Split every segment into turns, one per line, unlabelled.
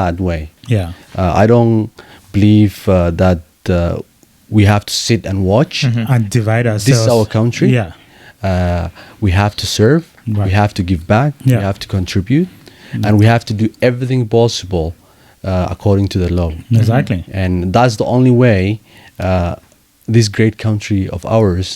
that way.
Yeah.
Uh, I don't believe uh, that uh, we have to sit and watch.
And divide ourselves.
This is our country.
Yeah.
Uh, we have to serve. We
Right.
have to give back. We
Yeah. Mm-hmm.
have to contribute, and we have to do everything possible uh, according to the law. Mm-hmm.
Exactly.
And that's the only way uh, this great country of ours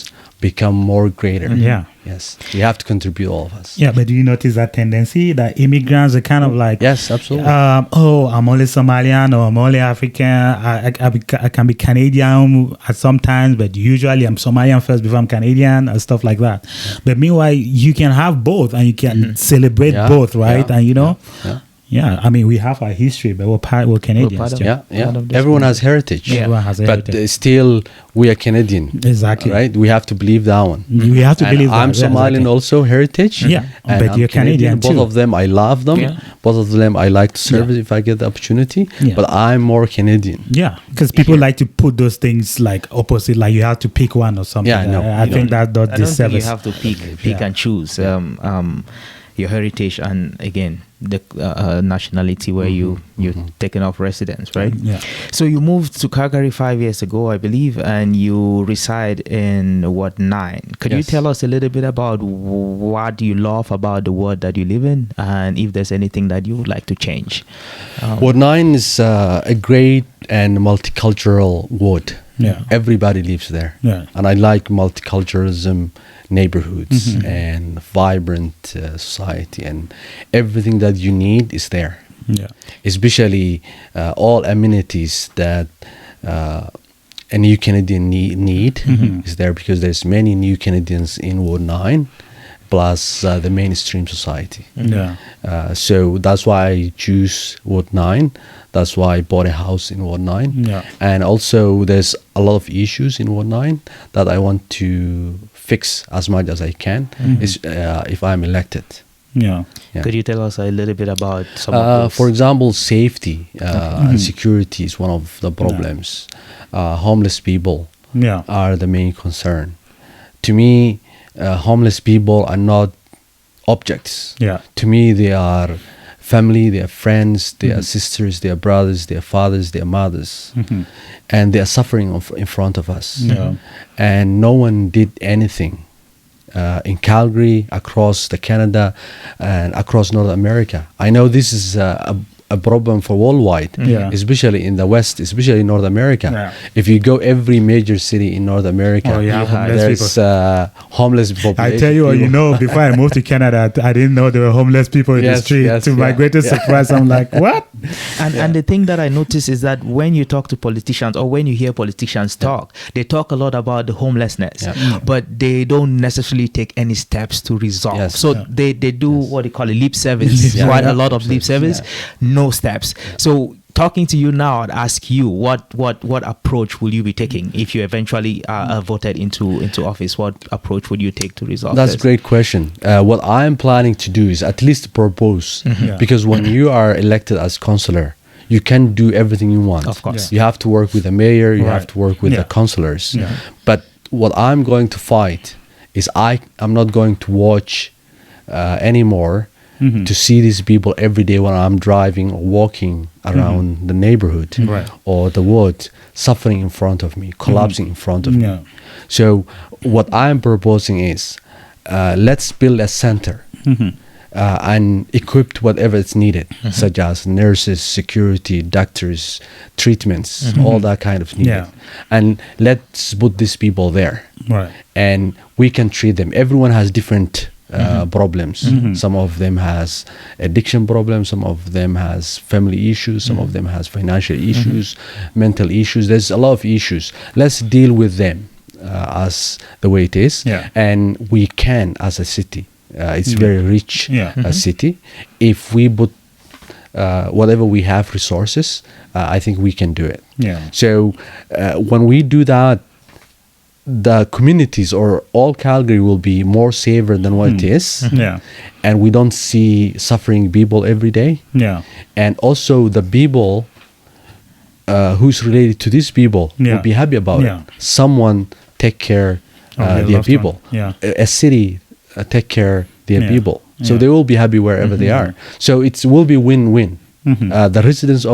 become more greater.
Mm-hmm. Yeah.
Yes, we have to contribute all of us.
Yeah, but do you notice that tendency that immigrants are kind of like
Yes, absolutely.
Um, oh, I'm only Somalian or I'm only African. I, I, I, be, I can be Canadian at sometimes, but usually I'm Somalian first before I'm Canadian and stuff like that. But meanwhile, you can have both and you can celebrate
Mm-hmm. Yeah,
both, right?
yeah,
and you know,
yeah.
yeah. I mean, we have our history, but we're part, we're Canadians.
part of
too.
yeah,
Part
yeah.
of this
Everyone has heritage.
Yeah. Everyone has
but
heritage.
uh, still, we are Canadian.
Exactly.
Right. We have to believe that one.
We have
Mm-hmm.
to
And
believe
I'm
that, yeah,
Somalian
exactly.
also heritage.
Yeah,
and
but
I'm
you're Canadian
Both
too.
of them, I love them.
Yeah.
Both of them, I like to serve if I get the opportunity.
Yeah.
But I'm more Canadian.
Yeah, because people like to put those things like opposite, like you have to pick one or something.
Yeah, no,
I, I
you
think that does
I don't think you
disservice.
have to pick, pick
Yeah.
and choose um, um, your heritage and again the uh, uh, nationality where you you're taking up residence, right?
Mm-hmm. Yeah.
So you moved to Calgary five years ago, I believe, and you reside in Ward Nine. Could you
Yes.
tell us a little bit about wh- what you love about the world that you live in, and if there's anything that you would like to change? Um,
Uh-huh. Ward 9 is uh, a great and multicultural ward.
Yeah.
Everybody lives there.
Yeah.
And I like multiculturalism neighborhoods
Mm-hmm.
and vibrant uh, society and everything that you need is there.
Yeah.
especially uh, all amenities that uh, a new Canadian nee- need
Mm-hmm.
is there because there's many new Canadians in Ward 9 plus uh, the mainstream society.
Yeah.
Uh, so that's why I choose Ward 9. That's why I bought a house in Ward 9.
Yeah.
And also there's a lot of issues in Ward 9 that I want to fix as much as I can is, uh, if I'm elected.
Yeah.
Yeah.
Could you tell us a little bit about some of
Uh,
those?
for example, safety uh, and security is one of the problems. Uh, homeless people
Yeah.
are the main concern. To me, uh, homeless people are not objects.
Yeah.
To me, they are family, they are friends, they
Mm-hmm.
are sisters, they are brothers, they are fathers, they are mothers, and they are suffering of, in front of us.
Mm-hmm. Yeah.
And no one did anything. Uh, in Calgary, across the Canada, and across North America, I know this is uh, a, a problem for worldwide,
Yeah.
especially in the West, especially in North America.
Yeah.
If you go every major city in North America,
Oh, yeah, homeless
there's
people.
uh, homeless population.
I tell you what, you
people.
know, before I moved to Canada, I didn't know there were homeless people in
Yes,
the street.
yes,
to my
yeah,
greatest
yeah.
surprise, I'm like, what?
And, and the thing that I notice is that when you talk to politicians or when you hear politicians talk, they talk a lot about the homelessness,
Yeah. Mm.
but they don't necessarily take any steps to resolve.
Yes.
So
Yeah.
they, they do what they call a lip service,
Yeah.
quite
Yeah.
a lot of lip service, no steps. So talking to you now, I'd ask you what what what approach will you be taking if you eventually are uh, voted into into office? What approach would you take to resolve?
That's a
this?
great question. Uh, what I am planning to do is at least propose,
Yeah.
because when you are elected as councillor, you can do everything you want.
Of course.
you have to work with the mayor, you have
Right.
to work with the
Yeah.
councillors.
Yeah.
But what I'm going to fight is I I'm not going to watch uh, anymore
Mm-hmm.
to see these people every day when I'm driving or walking around the neighborhood
Mm-hmm. Right.
or the ward, suffering in front of me, collapsing in front of
Yeah.
me. So what I'm proposing is uh, let's build a center uh, and equip whatever is needed, such as nurses, security, doctors, treatments, all that kind of needed.
Yeah. Mm-hmm.
And let's put these people there.
Right.
And we can treat them. Everyone has different uh,
Mm-hmm.
problems. Some of them has addiction problems. Some of them has family issues. Some
Mm-hmm.
of them has financial issues, mental issues. There's a lot of issues. Let's deal with them uh, as the way it is.
Yeah.
And we can as a city. Uh, it's very rich
Yeah. Mm-hmm.
uh, city. If we put uh, whatever we have resources, uh, I think we can do it.
Yeah.
So uh, when we do that, the communities or all Calgary will be more safer than what it is.
Hmm. Yeah.
And we don't see suffering people every day.
Yeah.
And also the people uh, who's related to these people
Yeah.
will be happy about
Yeah.
it. Someone take care uh,
Of their
their
loved one.
people.
Yeah.
A, a city uh, take care their
Yeah.
people. So
Yeah. Mm-hmm.
they will be happy wherever they are. So it will be win-win. Uh, the residents of